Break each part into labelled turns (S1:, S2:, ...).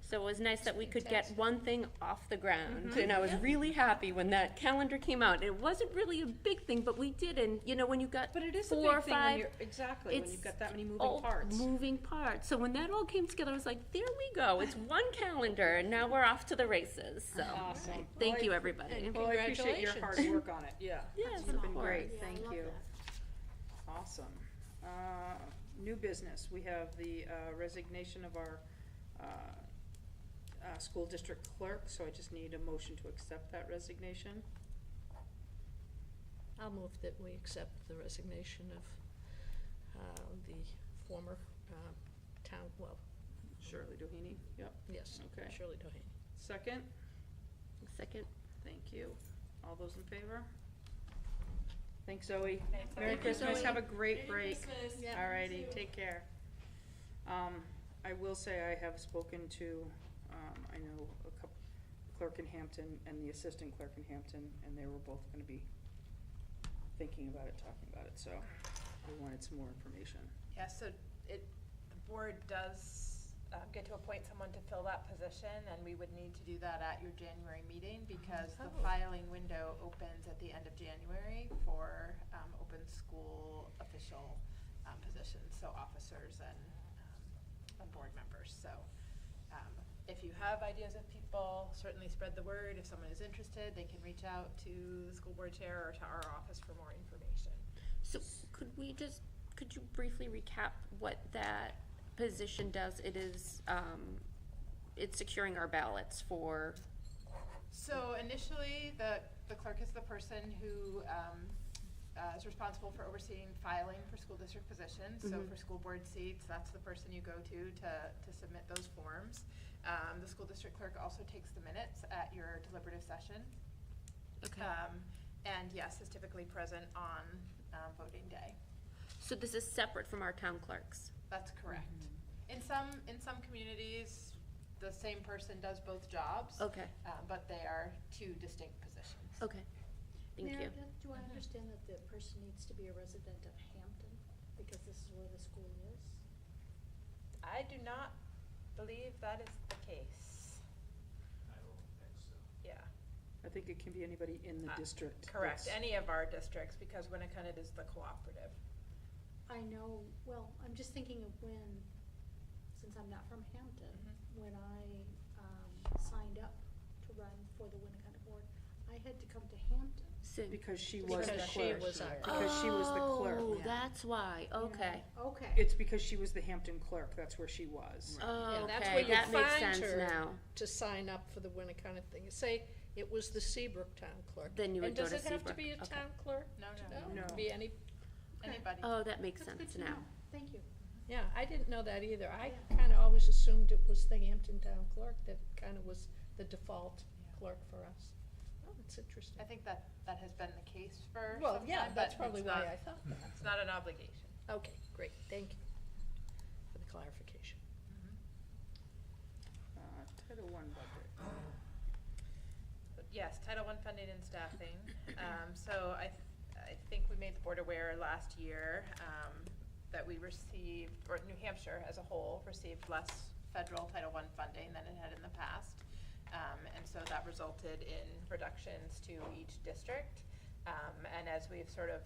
S1: So it was nice that we could get one thing off the ground.
S2: Mm-hmm.
S1: And I was really happy when that calendar came out. It wasn't really a big thing, but we did. And, you know, when you got
S2: But it is a
S1: four or
S2: big thing when
S1: five
S2: you're, exactly, when
S1: it's
S2: you've got that many moving
S1: all
S2: parts.
S1: moving parts. So when that all came together, I was like, there we go. It's one calendar, and now we're off to the races. So
S2: Awesome.
S1: thank you, everybody.
S2: Well, I appreciate your hard work on it, yeah.
S1: Yes,
S2: It's
S1: of
S2: been
S1: course.
S2: great,
S3: Yeah, I
S2: thank
S3: love
S2: you.
S3: that.
S2: Awesome. Uh, New business, we have the uh, resignation of our uh, uh, school district clerk, so I just need a motion to accept that resignation.
S4: I'll move that we accept the resignation of uh, the former um, town, well,
S2: Shirley Doheny, yep.
S4: yes,
S2: Okay.
S4: Shirley Doheny.
S2: Second,
S1: Second.
S2: thank you. All those in favor? Thanks, Zoe.
S3: Thanks,
S2: Merry
S3: Zoe.
S2: Christmas,
S3: Zoe.
S2: have a great break.
S3: Christmas. Yeah.
S2: Alrighty, take care. Um, I will say I have spoken to, um, I know a couple, clerk in Hampton and the assistant clerk in Hampton, and they were both gonna be thinking about it, talking about it, so we wanted some more information.
S5: Yeah, so it, the board does um, get to appoint someone to fill that position, and we would need to do that at your January meeting, because the
S4: Oh.
S5: filing window opens at the end of January for um, open school official um, positions, so officers and, um, and board members. So um, if you have ideas of people, certainly spread the word. If someone is interested, they can reach out to the school board chair or to our office for more information.
S1: So could we just, could you briefly recap what that position does? It is, um, it's securing our ballots for,
S5: So initially, the, the clerk is the person who um, uh, is responsible for overseeing filing for school district positions. So
S1: Mm-hmm.
S5: for school board seats, that's the person you go to to, to submit those forms. Um, The school district clerk also takes the minutes at your deliberative session.
S1: Okay.
S5: Um, And yes, is typically present on um, voting day.
S1: so this is separate from our town clerks?
S5: That's correct.
S1: Mm-hmm.
S5: In some, in some communities, the same person does both jobs.
S1: Okay,
S5: uh, But they are two distinct positions.
S1: Oh. okay. Thank you.
S3: Meredith, do I understand that the person needs to be a resident of Hampton, because this is where the school is?
S5: I do not believe that is the case. Yeah,
S2: I think it can be anybody in the
S5: Uh,
S2: district.
S5: correct,
S2: that's-
S5: any of our districts, because Winnicott is the cooperative.
S3: I know, well, I'm just thinking of when, since I'm not from Hampton,
S5: Mm-hmm.
S3: when I, um, signed up to run for the Winnicott Board, I had to come to Hampton.
S1: Sin-
S2: Because she was the
S4: Because she
S2: clerk.
S4: was our
S2: Because she was the clerk.
S1: Oh, that's why, okay.
S3: Okay,
S2: It's because she was the Hampton clerk, that's where she was.
S1: Oh,
S4: And that's
S1: okay,
S4: where you
S1: that makes
S4: find
S1: sense
S4: her.
S1: now.
S4: To sign up for the winter kind of thing, say it was the Seabrook Town Clerk.
S1: Then you would go to
S4: And does it have to
S1: Seabrook,
S4: be a
S1: okay.
S4: town clerk?
S5: No,
S4: No, it
S2: No.
S4: could be any,
S5: Anybody.
S1: Oh, that makes
S3: That's good
S1: sense
S3: to
S1: now.
S3: know. thank you.
S4: yeah, I didn't know that either. I kind of always assumed it was the Hampton Town Clerk that kind of was the default clerk for us. Oh, that's interesting.
S5: I think that, that has been the case for some
S4: Well,
S5: time,
S4: yeah, that's
S5: but
S4: probably
S5: it's
S4: why
S5: not-
S4: I thought that.
S5: It's not an obligation.
S4: Okay, great, thank you for the clarification.
S5: Mm-hmm.
S2: Uh, Title I budget.
S5: But Yes, Title I funding and staffing. Um, so I, I think we made the board aware last year, um, that we received, or New Hampshire as a whole, received less federal Title I funding than it had in the past. Um, and so that resulted in reductions to each district. Um, and as we've sort of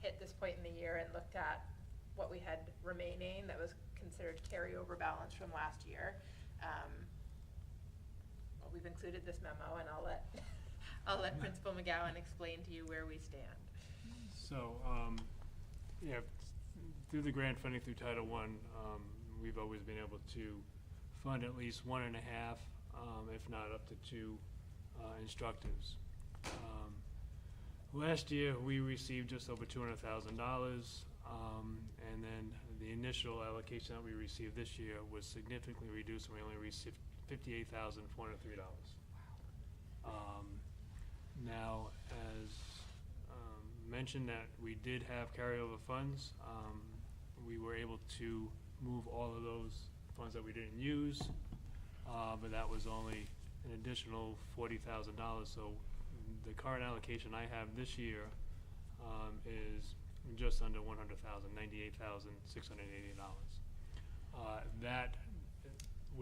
S5: hit this point in the year and looked at what we had remaining that was considered carryover balance from last year, um, well, we've included this memo, and I'll let, I'll let Principal McGowan explain to you where we stand.
S6: So, um, yeah, through the grant funding through Title One, um, we've always been able to fund at least one and a half, um, if not up to two, uh, instructors. Um, Last year, we received just over two hundred thousand dollars, um, and then the initial allocation that we received this year was significantly reduced, and we only received fifty-eight thousand four hundred three dollars. Um, now, as um, mentioned that we did have carryover funds, um, we were able to move all of those funds that we didn't use, uh, but that was only an additional forty thousand dollars, so the current allocation I have this year, um, is just under one hundred thousand, ninety-eight thousand, six hundred and eighty dollars. Uh, that